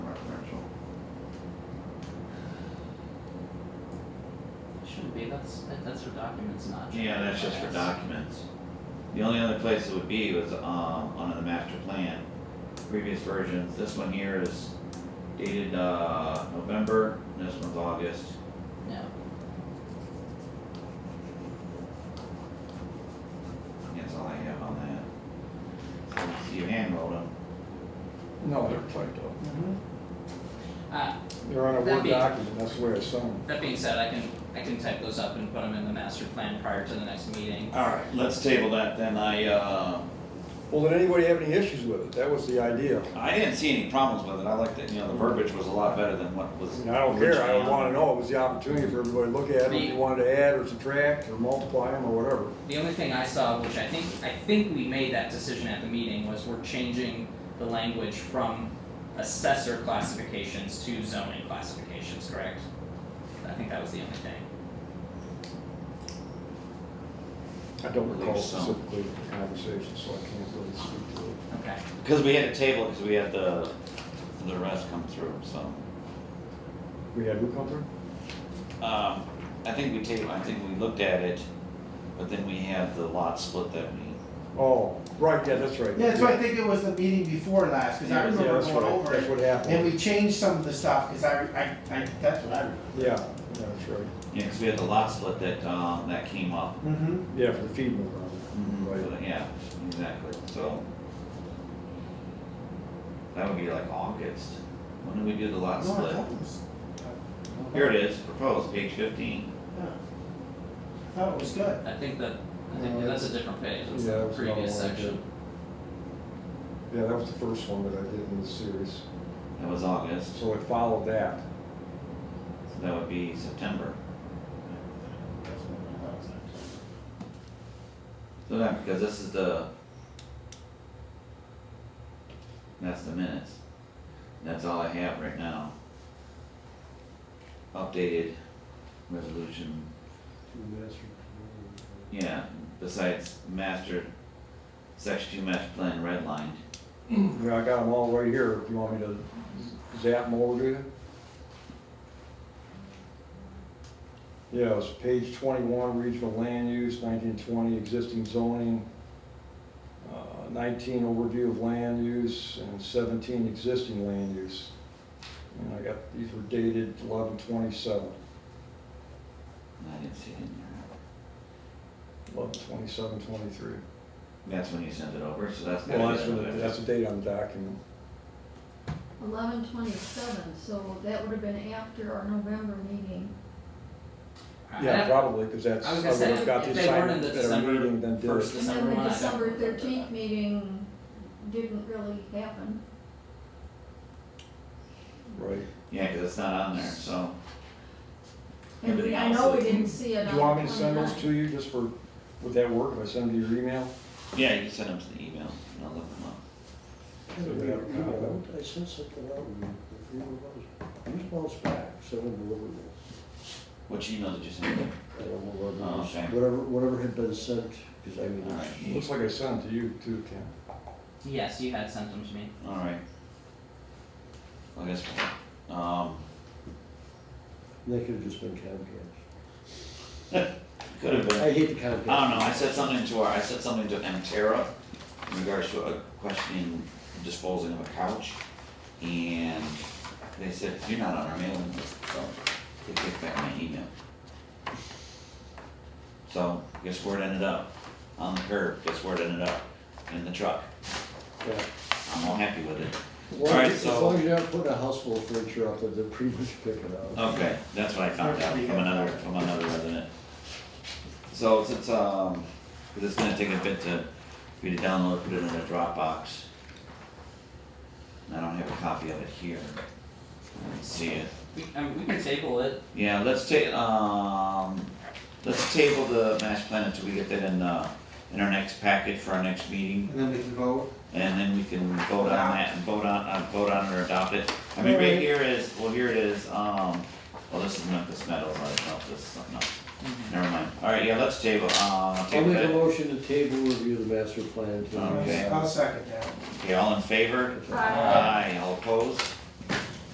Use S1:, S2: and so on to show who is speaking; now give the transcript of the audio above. S1: should be, that's, that- that's for documents, not.
S2: Yeah, that's just for documents. The only other place it would be was, um, under the master plan, previous versions, this one here is dated, uh, November, and this one's August.
S1: Yeah,
S2: That's all I have on that. So You hand wrote them.
S3: No, they're typed up.
S1: uh,
S3: They're on a
S1: That'd
S3: Word
S1: be-
S3: document, that's the way it's shown.
S1: that being said, I can, I can type those up and put them in the master plan prior to the next meeting.
S2: Alright, let's table that then, I, uh,
S3: Well, did anybody have any issues with it? That was the idea.
S2: I didn't see any problems with it, I liked it, you know, the verbiage was a lot better than what was.
S3: I mean, I don't care, I
S2: originally
S3: would
S2: on
S3: wanna
S2: it.
S3: know, it was the opportunity for everybody to look at it, if you wanted to add or subtract or multiply them or whatever.
S1: The only thing I saw, which I think, I think we made that decision at the meeting, was we're changing the language from assessor classifications to zoning classifications, correct? I think that was the only thing.
S3: I don't
S2: Believe
S3: recall
S2: so.
S3: specifically the conversation, so I can't really speak to it.
S1: Okay.
S2: Cause we had a table, cause we had the, the rest come through, so.
S3: We had who come through?
S2: Um, I think we take, I think we looked at it, but then we had the lot split that we,
S3: Oh, right, yeah, that's right.
S4: Yeah, that's why I think it was the meeting before last, cause I
S3: Yeah,
S4: remember
S3: that's
S4: going
S3: what-
S4: over
S3: That's
S4: it,
S3: what
S4: and
S3: happened.
S4: we changed some of the stuff, cause I, I, I, that's what I remember.
S3: Yeah, yeah, that's right.
S2: yeah, 'cause we had the lot split that, um, that came up.
S4: Mm-hmm.
S3: Yeah, for the feed mill.
S2: So,
S3: Right.
S2: Yeah, exactly, so. That would be like August, when did we do the lot
S4: No, I
S2: split?
S4: thought it was.
S2: Here it is, proposed, page fifteen,
S4: Yeah. I Thought it was good.
S1: I think that, I think
S3: No,
S1: that's a different page, it's
S3: Uh, yeah,
S1: the
S3: that's another
S1: previous
S3: one I did.
S1: section.
S3: Yeah, that was the first one that I did in the series,
S2: that was August,
S3: so it followed that.
S2: so that would be September. So that, because this is the. That's the minutes. That's all I have right now. Updated resolution, yeah, besides master, section two master plan redlined.
S3: Yeah, I got them all right here, if you want me to zap them over to you. Yeah, it's page twenty-one, regional land use, nineteen twenty, existing zoning, uh, nineteen, overview of land use, and seventeen, existing land use. And I got, these were dated eleven twenty-seven.
S2: I didn't see it in there.
S3: Eleven twenty-seven, twenty-three.
S2: That's when you sent it over, so that's.
S3: Well, that's,
S2: gotta
S3: what-
S2: be-
S3: that's the date on the document.
S5: Eleven twenty-seven, so that would have been after our November meeting.
S1: I-
S3: Yeah, probably, because that's,
S1: I
S3: I
S1: was
S3: would
S1: gonna say,
S3: have got the
S1: if they weren't in the
S3: assignment at a meeting, then
S1: December
S3: did it.
S1: first,
S5: And
S1: December
S5: then
S1: one, I
S5: the
S1: don't
S5: December
S1: remember that.
S5: thirteenth meeting didn't really happen.
S3: Right.
S2: Yeah, cause it's not on there, so.
S5: And we-
S2: Everything
S5: I
S2: else
S5: know
S2: is-
S5: we didn't see
S3: Do
S5: it on
S3: you
S5: the
S3: want me to send those
S5: 29th.
S3: to you just for, would that work if I send them to your email?
S2: Yeah, you can send them to the email, and I'll look them up.
S3: So we have a copy of it.
S6: I sent something out and a few months, a
S3: Mm-hmm.
S6: few months back, seven deliverables.
S2: Which email did you send it?
S6: I don't know whether
S2: Oh,
S6: it was,
S2: okay.
S6: whatever, whatever had been sent, because I mean, it's-
S2: Alright.
S3: Looks like I sent them to you too, Ken.
S1: Yes, you had sent them to me.
S2: Alright. I guess, um,
S6: they could have just been Comcast.
S2: could have been,
S6: I hate the
S2: I don't
S6: Comcast.
S2: know, I said something to our, I said something to Mtera in regards to a questioning disposing of a couch. And they said, you're not on our mailing list, so they kicked back my email. So guess where it ended up? On the curb, guess where it ended up? In the truck.
S6: Yeah.
S2: I'm all happy with it.
S6: As long
S2: Alright,
S6: as- As
S2: so-
S6: long as you're not putting a house full of furniture out there, they'll pretty much pick it up.
S2: Okay, that's what I found out from another, from another resident. So since, um, 'cause it's gonna take a bit to, for you to download, put it in a Dropbox. And I don't have a copy of it here. I don't see it.
S1: We, I mean, we can table it,
S2: Yeah, let's ta- um, let's table the master plan until we get that in, uh, in our next packet for our next meeting.
S4: And then we can vote.
S2: And then we can vote on that and vote on, uh, vote on or adopt it. I mean, right here is, well, here it is, um, well, this is Memphis Metals, I don't know if this is something else. Never mind. Alright, yeah, let's table, uh,
S6: I'll
S2: table
S6: make a
S2: it.
S6: motion to table review the master plan to.
S2: Okay.
S4: I'll second that.
S3: Uh,
S2: Okay, all in favor?
S5: Aye.
S2: all opposed?